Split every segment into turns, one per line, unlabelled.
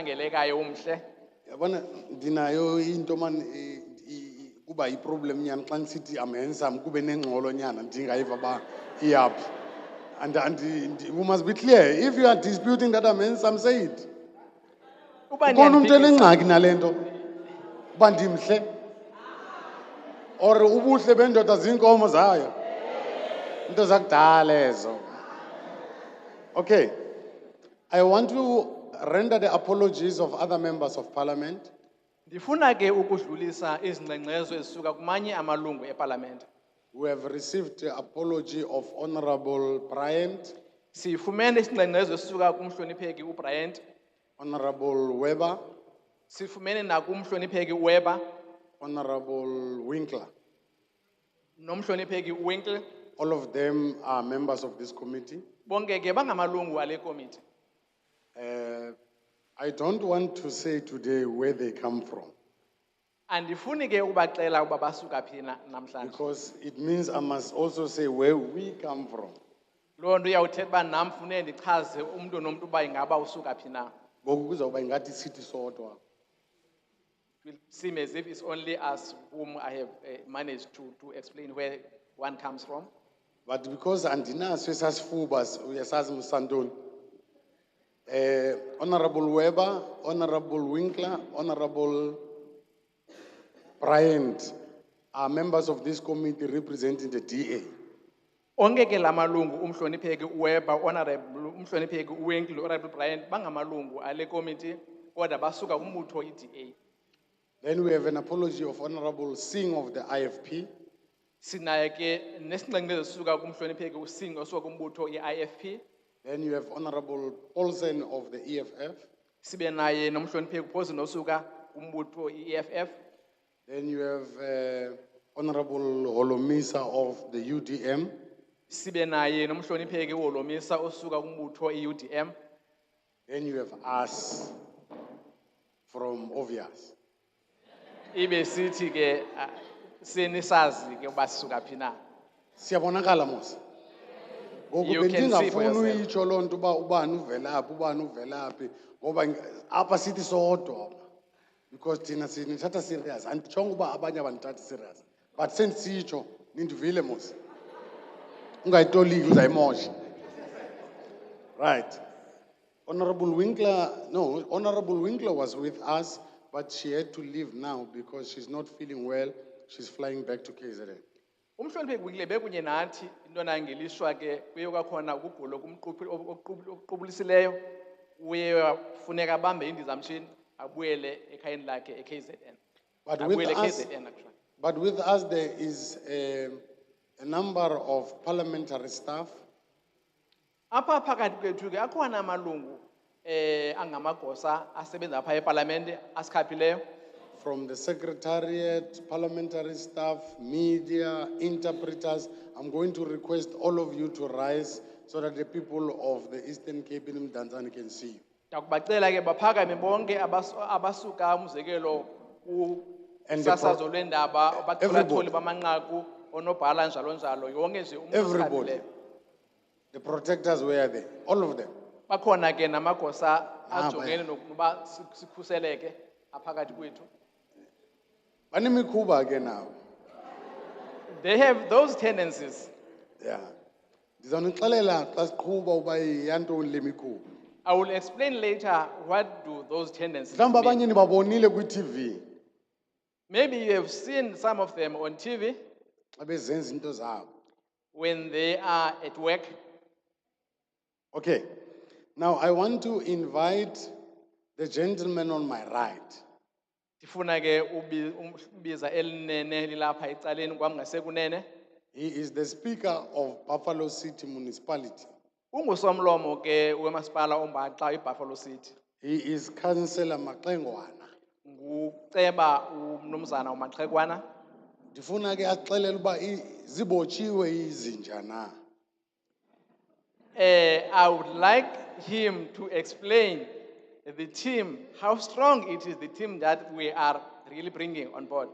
okhangelekayo umhle
yabona ndinayo into man eh, i- i- kuba yiproblem nyana xa ndisithi am handsome kube nengxolo nyana ndingayiva uba iyaphi and andi- ndi- we must be clear if you are disputing that i'm handsome say it
uba
ubona umntu
niyandiphikisa-
enengxaki nale nto uba ndimhle or ubuhle bendoda ziinkomo zayo into zakudala ezo okay i want to render the apologies of other members of parliament
ndifuna ke ukudlulisa izingxengxezo ezisuka kumanye amalungu epalamente
We have received the apology of Honorable Bryant,
sifumene isingxengxezo esisuka kumhlonipheki ubryant
Honorable Weber,
sifumene nakumhlonipheki uweber
Honorable Winkler.
nomhlonipheki uwinkle
All of them are members of this committee.
bonke ke bangamalungu ale komiti
Uh, I don't want to say today where they come from
andifuni ke ubaxela uba basuka phi na namhlanje
because it means I must also say where we come from.
loo nto iyawuthetha uba nam funeke ndichaze umntu nomntu uba ingaba usuka phi na
Ngoku kuzawuba ingathi sithi sodwa.
It will seem as if it's only us whom I have eh, managed to, to explain where one comes from.
But because andinaso esasifuba uyasazi msandoni. Eh Honorable Weber, Honorable Winkler, Honorable Bryant are members of this committee representing the DA.
Onke ke lamalungu umhlonipheki uWeber, honorable umhlonipheki uWinkle, honorable Bryant bangamalungu ale committee kodwa basuka kumbutho iDA.
Then we have an apology of Honorable Singh of the IFP,
Sinaye ke nesingxengxezo esisuka kumhlonipheki uSing osuka kumbutho iIFP
then you have Honorable Paulsen of the E EFF,
sibe naye nomhlonipheki Poison osuka kumbutho iEFF
then you have eh, Honorable Holomisa of the UDM,
sibe naye nomhlonipheki uHolomisa osuka kumbutho iUDM
then you have us from Obvious.
ibe sithi ke ah, senisazi ke uba sisuka phi na.
siyabonakala mosi ngoku
You can see for yourself.
bendingafuni uyitsho loo nto uba ubani uvelaphi ubani uvelaphi ngoba ng- apha sithi sodwa because thina sinithatha serious anditshonga uba abanye abanithathi serious but sendisitsho nindivile mosi ungayitoliki uzayimosha right honorable winkler no honorable winkler was with us but she had to leave now because she's not feeling well she's flying back to kzn
Umhlonipheki Wingle bekunye nathi intwana ngelishwa ke kuye kwakhona ukugula okumquphi- okuquphi- okuqubulisileyo uye wafuneka abambe indizamshini abuyele ekhayeni lakhe eKZN.
But with
Abuyele
us-
eKZN actually.
But with us, there is a, a number of parliamentary staff,
Apha phakathi kwethu ke akhona amalungu eh angamagosa asebenza apha epalamente asikhaphileyo
from the secretariat, parliamentary staff, media, interpreters. I'm going to request all of you to rise so that the people of the Eastern Cape and Mdantsane can see you.
ndakubacela ke baphakame bonke abas- abasuka umzekelo
And the pro-
kusasazo lweendaba
Everybody.
abachoolachooli bamanqaku onobhala njalo njalo yonke nje umntu
Everybody.
osikhathileyo.
The protectors were there, all of them.
bakhona ke namagosa
Ah,
ajongene nokuba si- sikhuseleke aphakathi kwethu
Banemikhuba ke nabo.
they have those tendencies
Yeah. Ndizawunixelela xa siqhuba uba yantoni le mikhuba.
i will explain later what do those tendencies
Mhlawumbi
mean.
abanye nibabonile kwi-TV
maybe you have seen some of them on tv
xa bezenza into zabo.
when they are at work
Okay. Now I want to invite the gentleman on my right.
ndifuna ke ubi- umbiza elinene lilapha ecaleni kwam ngasekunene
He is the speaker of Buffalo City Municipality.
ungusomlomo ke wemasipala ombaxa ibuffalo city
He is Councillor Makengwana.
nguceba umnumzana umaxhekwana
Ndifuna ke axelele uba i- zibotshiwe izinja na.
Eh, I would like him to explain the team, how strong it is, the team that we are really bringing on board.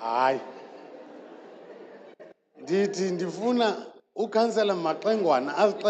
Hayi. Ndithi ndifuna ukansela maxengwana azixele